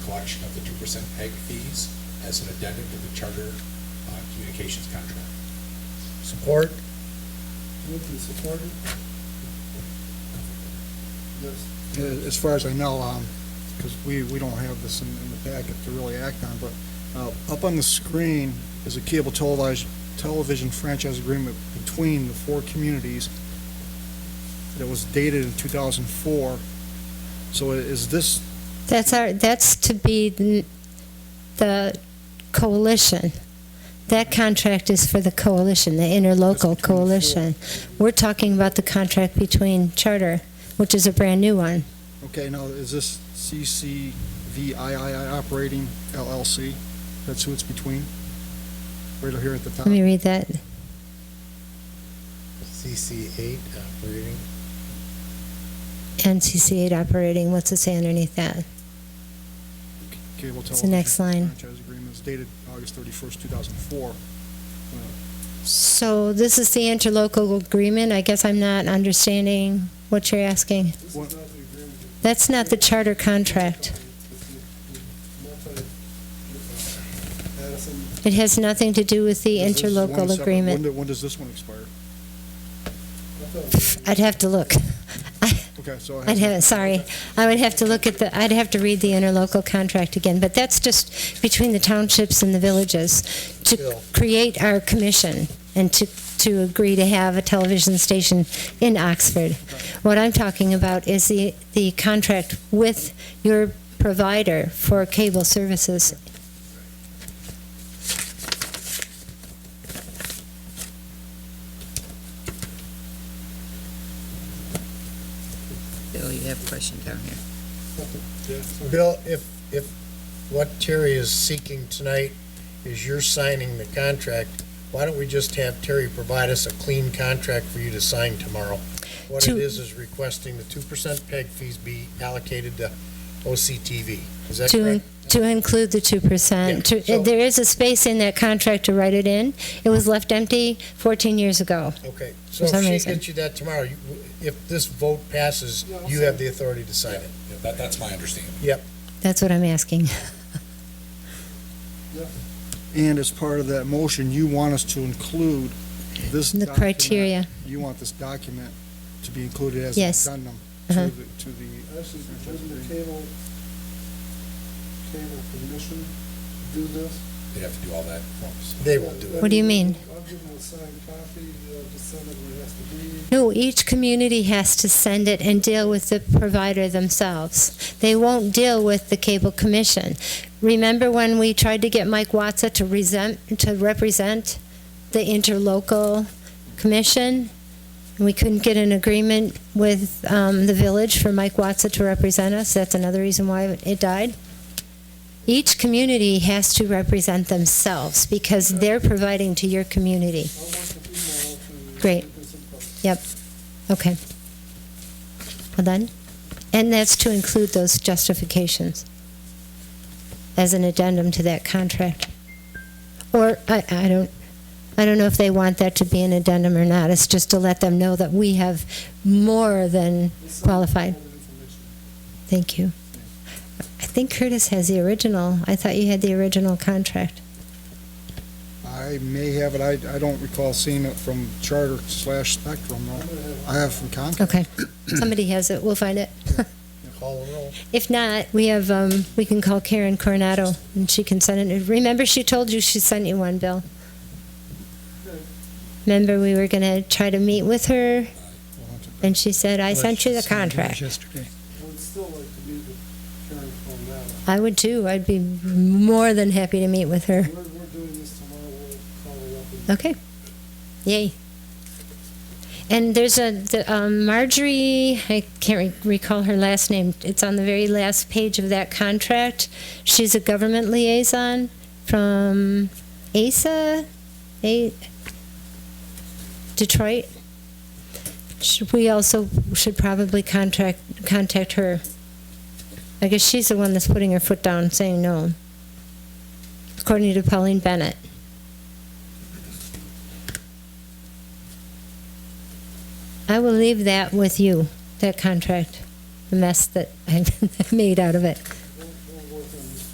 collection of the two percent PEG fees as an addendum to the charter uh, communications contract. Support? Moved and supported? Yes. Uh, As far as I know, because we, we don't have this in, in the packet to really act on, but uh, up on the screen is a cable televised, television franchise agreement between the four communities that was dated in 2004. So i- is this, That's our, that's to be the- the coalition. That contract is for the coalition, the between the four. interlocal coalition. We're talking about the contract between Charter, which is a brand-new one. okay, now, is this CCVII Operating LLC? That's who it's between? Right here at the top? Let me read that. CC eight operating. NCC8 operating, what's it say underneath that? Cable It's the next television line. Franchise agreement is dated August 31st, 2004. So this is the interlocal agreement? I guess I'm not understanding what you're asking. This is not the agreement. That's not the charter contract. Multi- uh, Addison, It has nothing to do with the Is this one interlocal separate- When, agreement. do- when does this one expire? I thought- I'd have to look. Okay, so I I'd have, have, sorry, I would have to look at the, I'd have to read the interlocal contract again, but that's just between the townships and the villages to Bill. create our commission and to, to agree to have a television station in Oxford. What I'm talking about is the, the contract with your provider for cable services. Bill, you have a question down here. Bill, if, if what Terry is seeking tonight is you're signing the contract, why don't we just have Terry provide us a clean contract for you to sign tomorrow? What it To- is, is requesting the two percent peg fees be allocated to OCTV. Is that To, correct? in- to include the two percent. Yeah, so- There is a space in that contract to write it in. It was left empty fourteen years ago. Okay, so For some if she reason. gets you that tomorrow, you- if this vote passes, you have the authority to sign it. Yeah, That, that's my understanding. That's what I'm asking. and as part of that motion, you want us to include this The document- criteria. You want this document to be included as an Yes. addendum Uh-huh. to the, to the, Actually, doesn't the cable, cable commission do this? They'd have to do all that for us. They will do it. What do you mean? I'll give them a signed copy, they'll just send it where it has to be. No, each community has to send it and deal with the provider themselves. They won't deal with the cable commission. Remember when we tried to get Mike Watsa to resent, to represent the interlocal commission? And we couldn't get an agreement with, um, the village for Mike Watsa to represent us. That's another reason why it died. Each community has to represent themselves because they're providing to your community. I'll work with you tomorrow to. Great. make this in place. Okay. Well done. And that's to include those justifications as an addendum to that contract. Or, I, I don't, I don't know if they want that to be an addendum or not. It's just to let them know that we have more than, We'll send Qualified. all the information. thank you. I think Curtis has the original. I thought you had the original contract. I may have it, I, I don't recall seeing it from Charter slash Spectrum, no. I have from Comcast. Okay. Somebody has it. We'll find it. Call the roll. If not, we have, um, we can call Karen Coronado and she can send it. Remember she told you she sent you one, Bill? Remember we were gonna try to meet with her We'll have to- and she said, I sent you the contract. Yesterday. I would still like to meet with Karen Coronado. I would too. I'd be more than happy to meet with her. We're, we're doing this tomorrow, we'll call her up and. Okay. Yay. And there's a, the, um, Marjorie, I can't re- recall her last name. It's on the very last page of that contract. She's a government liaison from ASA, A, Detroit. Should, we also should probably contract, contact her. I guess she's the one that's putting her foot down, saying no. According to Pauline Bennett. I will leave that with you, that contract, the mess that I made out of it.